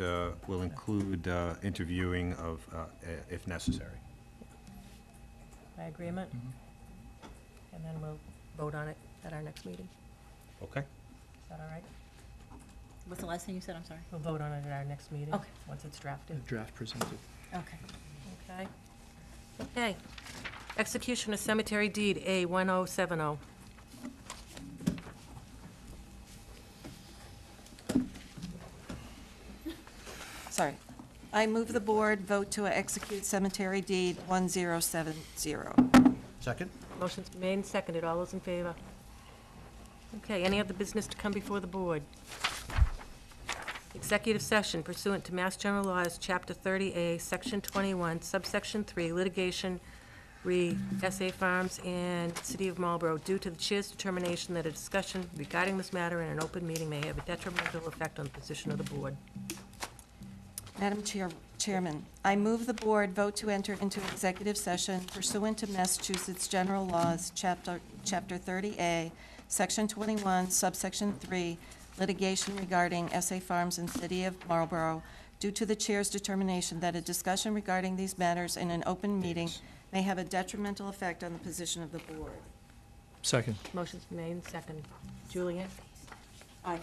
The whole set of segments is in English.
uh, will include uh, interviewing of, uh, i- if necessary. by agreement? And then we'll vote on it at our next meeting. Okay? Is that all right? What's the last thing you said? I'm sorry. We'll vote on it at our next meeting. Okay. Once it's The drafted. draft presented. Okay. Okay. Okay. Execution of cemetery deed, A 1070. Sorry. I move the board vote to execute cemetery deed 1070. Second? Motion's made and seconded. All those in favor? Okay, any other business to come before the board? Executive session pursuant to Mass General Laws, Chapter 30A, Section 21, Subsection 3, litigation re SA Farms and City of Marlborough, due to the chair's determination that a discussion regarding this matter in an open meeting may have a detrimental effect on the position of the board. Madam Chair- Chairman, I move the board vote to enter into executive session pursuant to Massachusetts General Laws, Chapter Chapter 30A, Section 21, Subsection 3, litigation regarding SA Farms and City of Marlborough, due to the chair's determination that a discussion regarding these matters in an open meeting may have a detrimental effect on the position of the board. Second. Motion's made and seconded. Julian? Aye.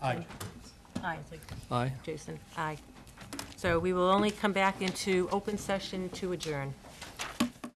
Aye. Aye. Aye. Jason? Aye. So we will only come back into open session to adjourn.